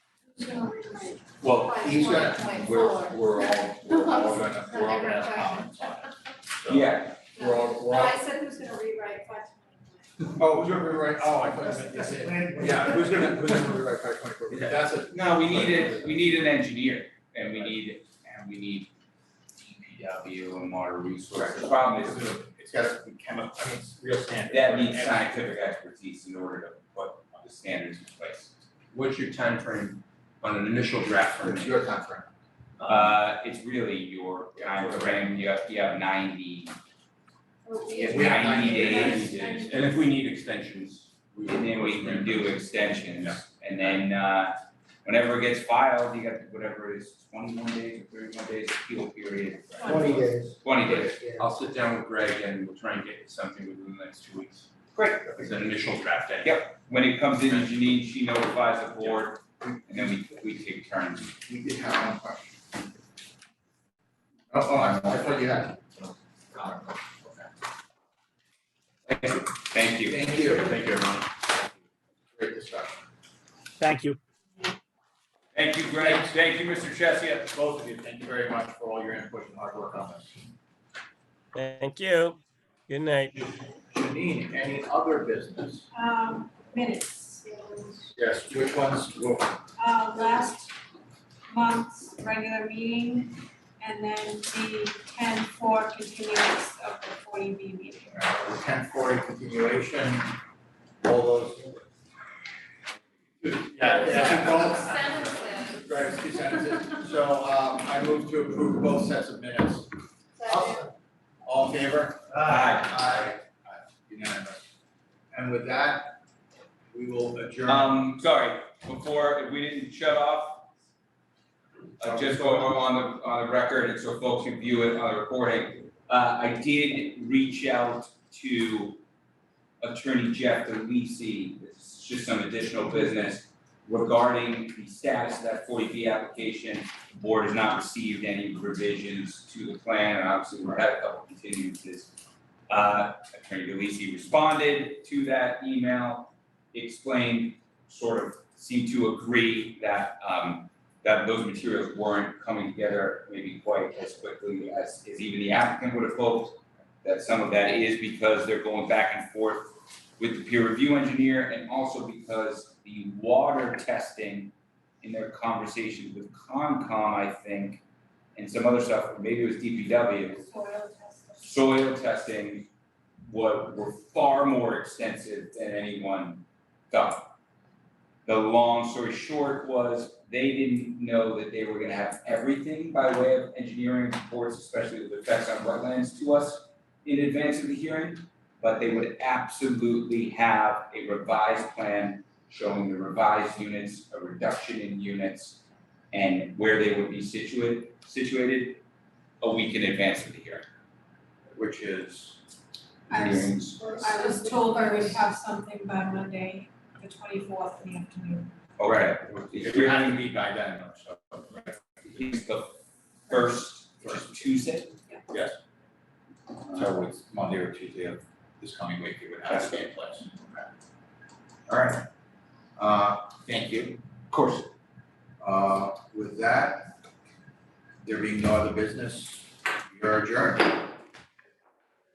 Well, he's got, Five point we're, four. we're all, we're all gonna, we're all gonna have comments on it. So, Yeah, We're all, No, we're all, I said who's gonna rewrite five oh, who's gonna rewrite, oh, I thought you meant, yes, yeah, yeah, who's gonna, who's gonna rewrite five twenty-four, Yeah. because that's a, no, we need it, we need an engineer and we need, and we need DPW and water resources. The problem is it's got a chemical, I mean, it's real standard. that needs scientific expertise in order to put the standards in place. What's your time frame on an initial draft for It's me? your timeframe. Uh, it's really your time frame. you have, you have ninety, Oh, you have We have ninety 90 days. days. And if we need extensions, we will. And then we can do extensions, Yeah. and then uh whenever it gets filed, you got whatever it is, twenty-one days or thirty-one days appeal period. Twenty days. Twenty days, Yeah. I'll sit down with Greg and we'll try and get something within the next two weeks. Great. As an initial draft day. Yep. when it comes in, Janine, she notifies the board, and then we we take turns. We did have one question. Oh, oh, I I thought you had. Thank you. Thank you. Thank you, everyone. Great discussion. Thank you. Thank you, Greg, thank you, Mr. Chesia. Both of you, thank you very much for all your input and hard work on this. Thank you. Good night. Janine, any other business? Um, minutes, Yes, which ones, will- uh, last month's regular meeting, and then the ten four continuance of the forty B meeting. uh, ten forty continuation, all those. Yeah, yeah, both, right, it's two sentences, so, um, I move to approve both sets of minutes. All in favor? Aye. Aye. Unanimous. And with that, we will adjourn. Um, sorry, before, if we didn't shut off, uh, just on, on the, on the record, and so folks can view it on the recording, uh, I did reach out to Attorney Jeff DeLisi, this is just some additional business regarding the status of that forty B application. The board has not received any revisions to the plan, and obviously we're at a couple continuances. Uh, Attorney DeLisi responded to that email, explained, sort of seemed to agree that, um, that those materials weren't coming together maybe quite as quickly as, as even the applicant would have hoped. That some of that is because they're going back and forth with the peer review engineer and also because the water testing in their conversations with Concom, I think, and some other stuff, or maybe it was DPW, Soil testing. soil testing what were far more extensive than anyone thought. The long story short was they didn't know that they were gonna have everything by way of engineering reports, especially with effects on wetlands to us in advance of the hearing, but they would absolutely have a revised plan showing the revised units, a reduction in units, and where they would be situated, situated a week in advance of the hearing Which is, I was- hearings. I was told I would have something by Monday, the twenty fourth in the afternoon. Okay, if we hadn't meet by then, or so. right? he's the first, first Tuesday. So it's Monday or Tuesday of this coming week, it would have to be in place. Okay. All right. Uh, thank you. Of course. Uh, with that, there being no other business, you're adjourned.